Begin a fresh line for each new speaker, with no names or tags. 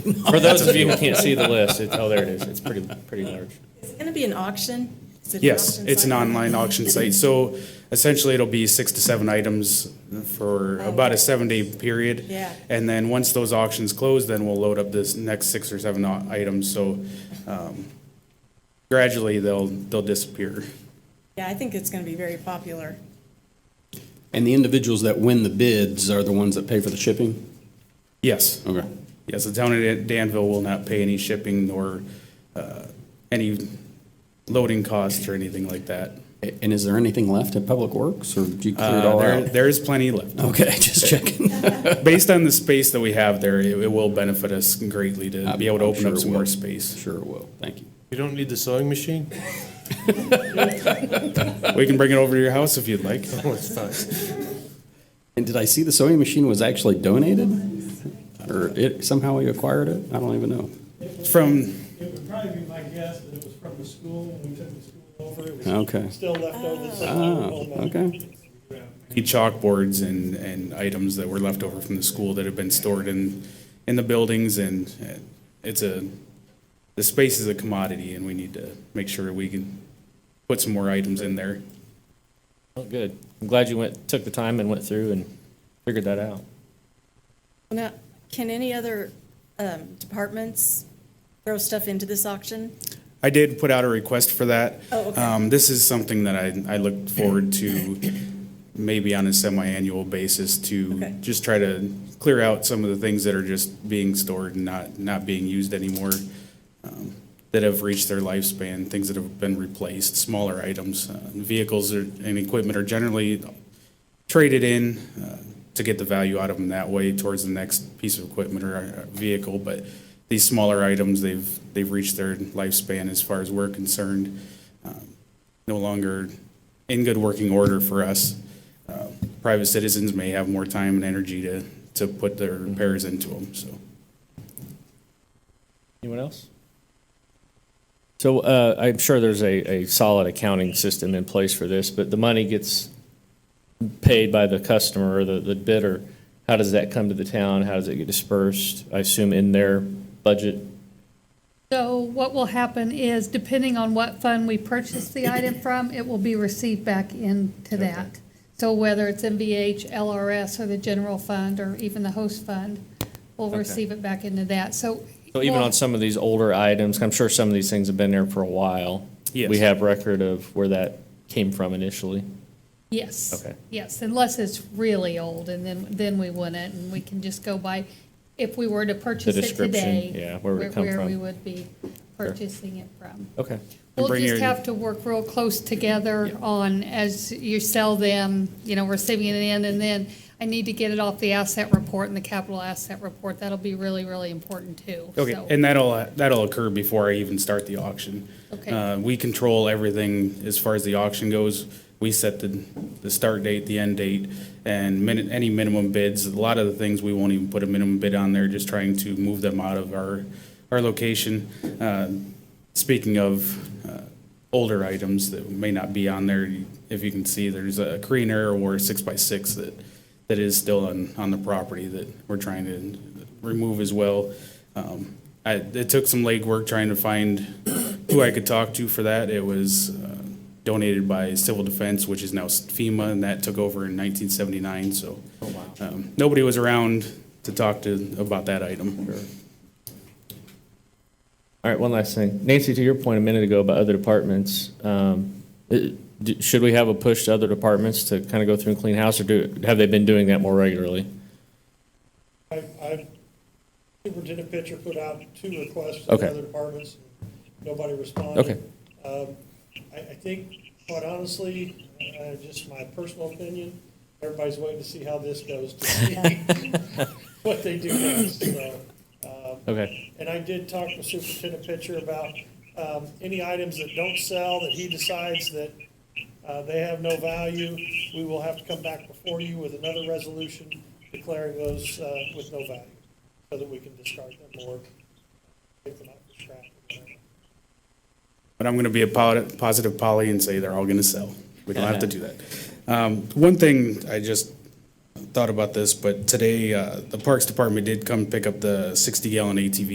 For those of you who can't see the list, it's, oh, there it is. It's pretty, pretty large.
Is it going to be an auction? Is it an
Yes,
auction
it's an
site?
online auction site. So essentially, it'll be six to seven items for about a seven-day period.
Yeah.
And then once those auctions close, then we'll load up this next six or seven au- items. So um, gradually, they'll, they'll disappear.
Yeah, I think it's going to be very popular.
And the individuals that win the bids are the ones that pay for the shipping?
Yes,
Okay.
yes, the town of Danville will not pay any shipping nor uh, any loading costs or anything like that.
A- And is there anything left at Public Works, or do you clear it
Uh,
all
There,
out? Oh.
there is plenty left.
Okay, just checking.
Based on the space that we have there, it it will benefit us greatly to be able to
I'm
open
sure
up
it
some
will.
more space.
Sure it will, thank you.
You don't need the sewing machine?
We can bring it over to your house if you'd like.
Oh, it's fine.
And did I see the sewing machine was actually donated? Or it, somehow we acquired it? I don't even know.
From,
It would probably be my guess that it was from the school, when we took the school over, it was
Okay.
still left over. so-
Oh, okay.
the chalkboards and, and items that were left over from the school that have been stored in, in the buildings and uh, it's a, the space is a commodity and we need to make sure we can put some more items in there.
Oh, good. I'm glad you went, took the time and went through and figured that out.
Now, can any other um, departments throw stuff into this auction?
I did put out a request for that.
Oh, okay.
Um, this is something that I, I look forward to maybe on a semi-annual basis
Okay.
to just try to clear out some of the things that are just being stored and not, not being used anymore, um, that have reached their lifespan, things that have been replaced, smaller items. Uh, Vehicles are- and equipment are generally traded in uh, to get the value out of them that way towards the next piece of equipment or uh, vehicle. But these smaller items, they've, they've reached their lifespan as far as we're concerned. Um, No longer in good working order for us. Uh, Private citizens may have more time and energy to, to put their repairs into them, so.
Anyone else? So uh, I'm sure there's a, a solid accounting system in place for this, but the money gets paid by the customer or the, the bidder. How does that come to the town? How does it get dispersed? I assume in their budget?
So what will happen is, depending on what fund we purchase the item from, it will be received back into that. So whether it's MVH, LRS, or the general fund, or even the host fund, we'll
Okay.
receive it back into that, so.
So even
we'll-
on some of these older items, I'm sure some of these things have been there for a while.
Yes.
We have record of where that came from initially.
Yes.
Okay.
Yes, unless it's really old, and then, then we wouldn't, and we can just go by, if we were to purchase it
description,
today.
yeah, where would it come
Where
from?
we would be purchasing it from.
Okay.
We'll
bring
just
your-
have to work real close together on, as you sell them, you know, receiving it in, and then I need to get it off the asset report and the capital asset report. That'll be really, really important too.
Okay,
So-
and that'll, that'll occur before I even start the auction.
Okay.
Uh, we control everything as far as the auction goes. We set the, the start date, the end date, and min, any minimum bids. A lot of the things, we won't even put a minimum bid on there, just trying to move them out of our, our location. Uh, Speaking of, uh, older items that may not be on there, if you can see, there's a Creener or a six-by-six that, that is still on, on the property that we're trying to remove as well. Um, I, it took some legwork trying to find who I could talk to for that. It was uh, donated by Civil Defense, which is now FEMA, and that took over in 1979, so. um, Nobody was around to talk to about that item.
All right, one last thing. Nancy, to your point a minute ago about other departments, um, it- d- should we have a push to other departments to kind of go through and clean house, or do, have they been doing that more regularly?
I, I, Superintendent Pitcher put out two requests to
Okay.
the other departments, nobody responded. Um, I, I think, quite honestly, uh, just my personal opinion, everybody's waiting to see how this goes, to see what they do next, so. um,
Okay.
And I did talk to Superintendent Pitcher about um, any items that don't sell, that he decides that uh, they have no value, we will have to come back before you with another resolution declaring those uh, with no value, so that we can discard them or take them out for scrap. or whatever.
But I'm going to be a po- positive Polly and say they're all going to sell. We don't have to do that. Um, One thing I just thought about this, but today, uh, the Parks Department did come pick up the 60-gallon ATV